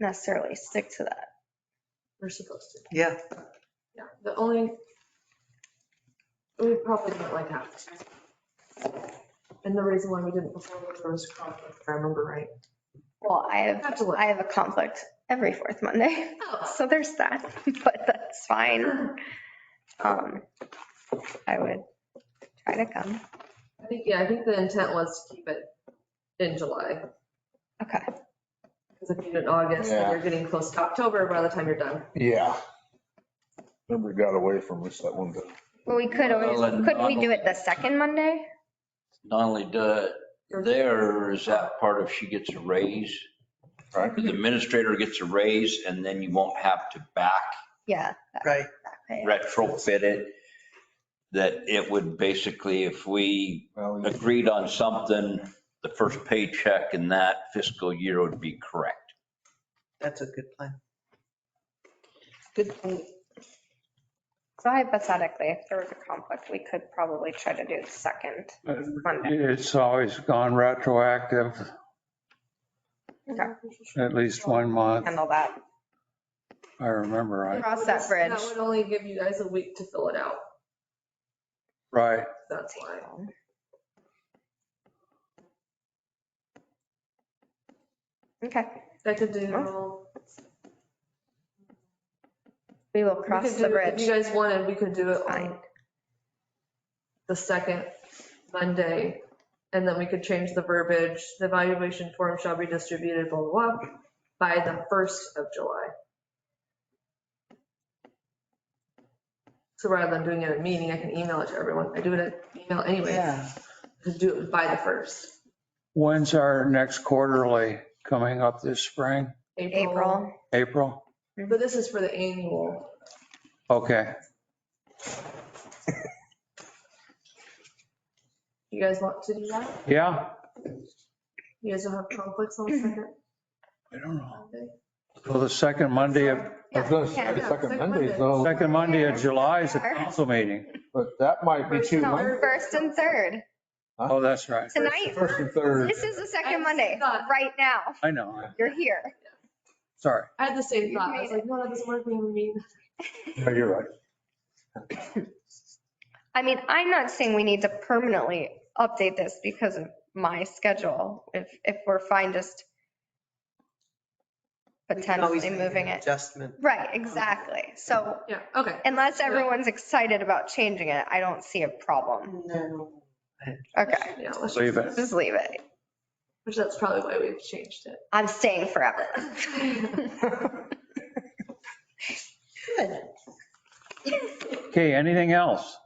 necessarily stick to that. We're supposed to. Yeah, Yeah, the only, we probably didn't like that. And the reason why we didn't before was there was conflict, if I remember right. Well, I have, Have to look. I have a conflict every fourth Monday, Oh. so there's that, but that's fine. Um, I would try to come. I think, yeah, I think the intent was to keep it in July, Okay, because if you do it in August, then Yeah. you're getting close to October by the time you're done. Yeah. Remember it got away from us that one time. well, we could Well, always, and- could we do it the second Monday? Not only do, there is that part of she gets a raise. Right. The administrator gets a raise and then you won't have to back Yeah. right. that way. retrofit it. That it would basically, if we Well, we- agreed on something, the first paycheck in that fiscal year would be correct. That's a good plan. Good point. So hypothetically, if there was a conflict, we could probably try to do the second. Monday. It's always gone retroactive Okay. at least one month, Handle that. if I remember right. Cross that bridge. That would only give you guys a week to fill it out. Right. That's why. Okay, I could Oh, do, all- we will we cross could the do- if you bridge. guys wanted, we could do it on Fine. the second Monday. And then we could change the verbiage, the evaluation form shall be distributed, blah, blah, blah, by the first of July. So rather than doing it at a meeting, I can email it to everyone. I do it at email anyway, Yeah, to do it by the first. When's our next quarterly coming up this spring? April, April? But this is for the annual. Okay. You guys want to do that? Yeah. You guys don't have conflicts on the second I don't know. Monday? Well, the second Monday of, I was gonna say, Yeah, second second Monday, Monday. though, second Monday of July is a council meeting. but that might be too no, much. first and third. Oh, that's right. Tonight, First and third. this is the I second Monday, thought- right now. I know. You're here. Sorry. I had the same You thought. I was made like, no, that doesn't work. We have a meeting. Yeah, You're right. I mean, I'm not saying we need to permanently update this because of my schedule. If, if we're fine just we can always potentially make an moving it. Adjustment. Right, exactly. So Yeah, okay. unless Yeah. everyone's excited about changing it, I don't see a problem. No. Okay, Yeah, let's, Leave it. just leave it. which that's probably why we've changed it. I'm staying forever. Good. Okay, anything else?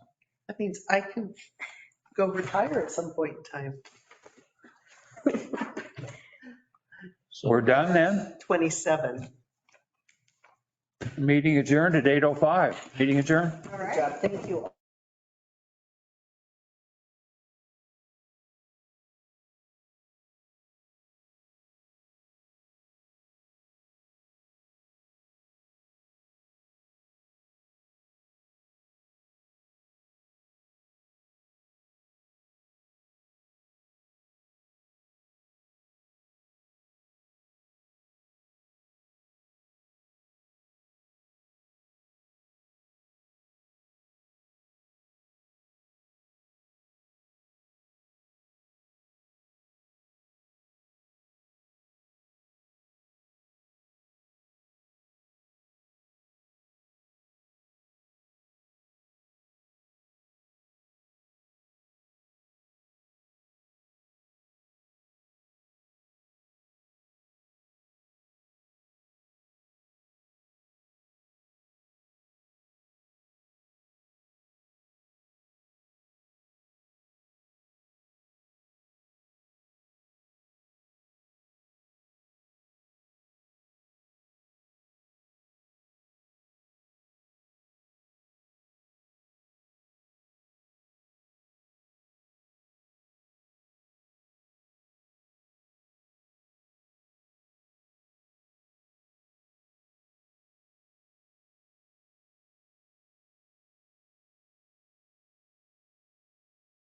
That means I can go retire at some point in time, We're done then? 27. Meeting adjourned at 8:05. Meeting adjourned? All Good right. job. Thank you all.